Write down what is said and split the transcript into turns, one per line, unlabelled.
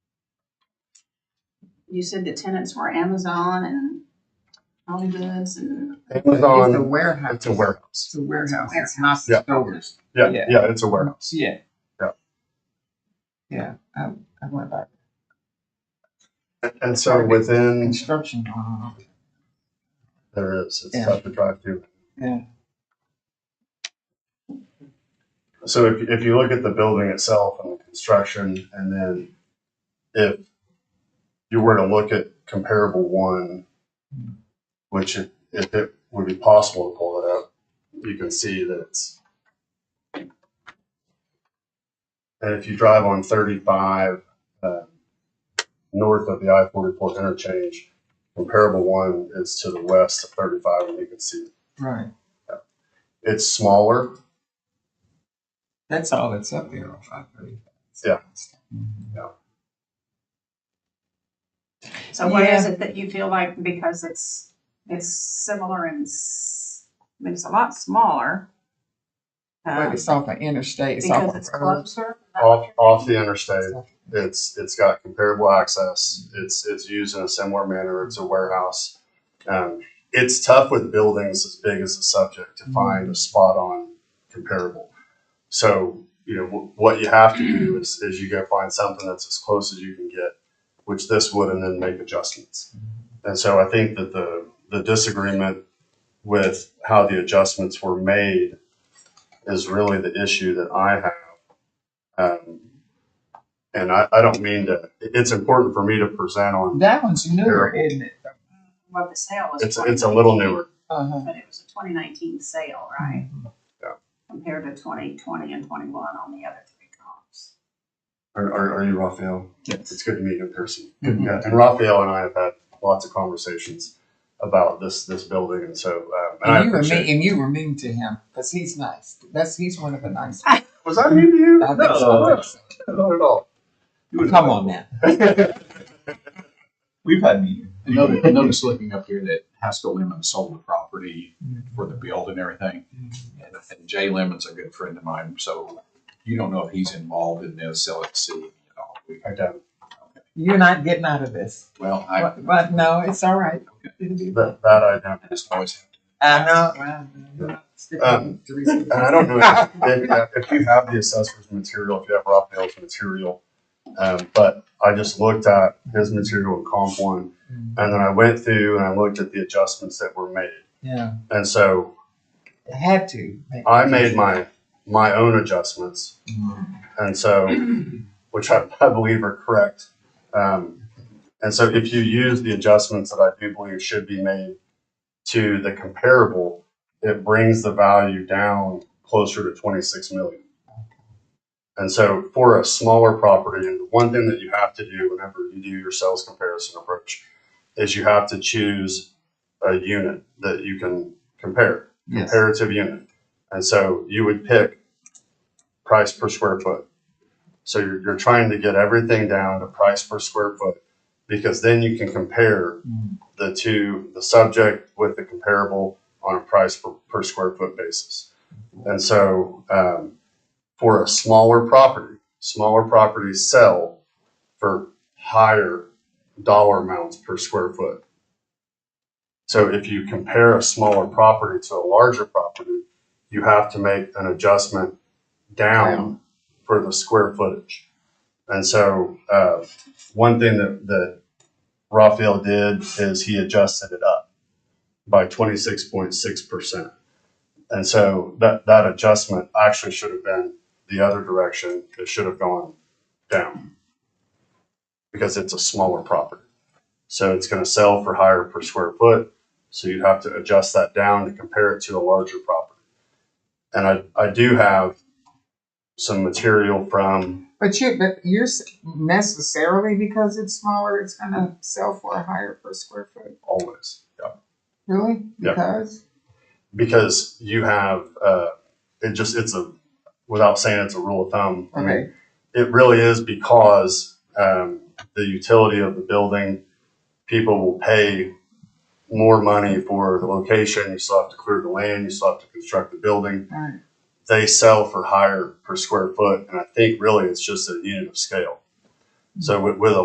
you said the tenants were Amazon and Home Goods and,
It's a
Amazon,
warehouse.
it's a warehouse.
It's a warehouse. It's not
Yeah.
stores.
Yeah,
Yeah.
yeah, it's a warehouse.
Yeah.
Yeah.
Yeah, I, I went by
And- And so within,
construction. uh,
there is, it's
Yeah.
tough to drive through.
Yeah.
So if, if you look at the building itself and the construction, and then if you were to look at comparable one, which if, if it would be possible to pull it up, you can see that it's. And if you drive on thirty-five, uh, north of the I forty-four interchange, comparable one is to the west of thirty-five, and you can see
Right.
it's smaller.
That's all that's up there on five thirty.
Yeah.
so what is
Yeah.
it that you feel like, because it's, it's similar and, s- I mean, it's a lot smaller.
But
um,
it's off an interstate. Uh, It's off
Because
a
it's
road.
closer. is that
Off,
what you're
off
thinking?
the interstate, it's, it's got comparable access, it's, it's used in a similar manner, it's a warehouse. Um, it's tough with buildings as big as the subject to find a spot on comparable. So, you know, wh- what you have to do is, is you go find something that's as close as you can get, which this would, and then make adjustments. And so I think that the, the disagreement with how the adjustments were made is really the issue that I have. Um, and I, I don't mean to, it- it's important for me to present on,
That one's newer, isn't it?
Well, the sale was.
it's, it's a little newer.
Uh-huh.
But it was a twenty nineteen sale, right?
Yeah.
Compared to twenty twenty and twenty-one on the other three comps.
Are, are, are you Raphael? Mm-hmm.
Yes.
It's good to meet you in person.
Mhm.
Yeah, and Raphael and I have had lots of conversations about this, this building, and so, um, and I
And you were mean,
appreciate.
and you were mean to him, cause he's nice. That's, he's one of the nice.
Was that mean to you?
I
No,
think so.
no, not at all.
Come on now. We've had meetings. I noticed, I noticed looking up here that Haskell Lemon sold the property for the build and everything. And, and Jay Lemon's a good friend of mine, so you don't know if he's involved in this LLC at all. We-
I don't,
You're not getting out of this.
Well, I
But, but no, it's all right. It'll be fine.
that, that I don't.
just always,
I know. well, you're not sticking
Um,
to reason.
And I don't know if, uh, if, if you have the assessor's material, if you have Raphael's material, um, but I just looked at his material in comp one,
Mm,
and then I went through and I looked at the adjustments that were made.
Yeah,
And so
it had to. make-
I made my, my own adjustments.
Mm.
And so, which I, I believe are correct. Um, and so if you use the adjustments that I do believe should be made to the comparable, it brings the value down closer to 26 million. And so for a smaller property, and the one thing that you have to do whenever you do your sales comparison approach is you have to choose a unit that you can compare
Yes.
comparative unit. And so you would pick price per square foot. So you're, you're trying to get everything down to price per square foot because then you can compare
Mm.
the two, the subject with the comparable on a price per, per square foot basis. And so, um, for a smaller property, smaller properties sell for higher dollar amounts per square foot. So if you compare a smaller property to a larger property, you have to make an adjustment down for the square footage. And so, uh, one thing that, that Raphael did is he adjusted it up by twenty-six point six percent. And so that, that adjustment actually should have been the other direction. It should have gone down. Because it's a smaller property. So it's gonna sell for higher per square foot. So you'd have to adjust that down to compare it to a larger property. And I, I do have some material from,
But you, but you're s- necessarily because it's smaller, it's gonna sell for a higher per square foot.
always.
Really?
Yeah.
Because?
because you have uh, it just it's a without saying it's a rule of thumb. I mean,
Okay.
it really is because um, the utility of the building, people will pay more money for the location. You still have to clear the land. You still have to construct the building.
All right.
They sell for higher per square foot, and I think really it's just a unit of scale. So with, with a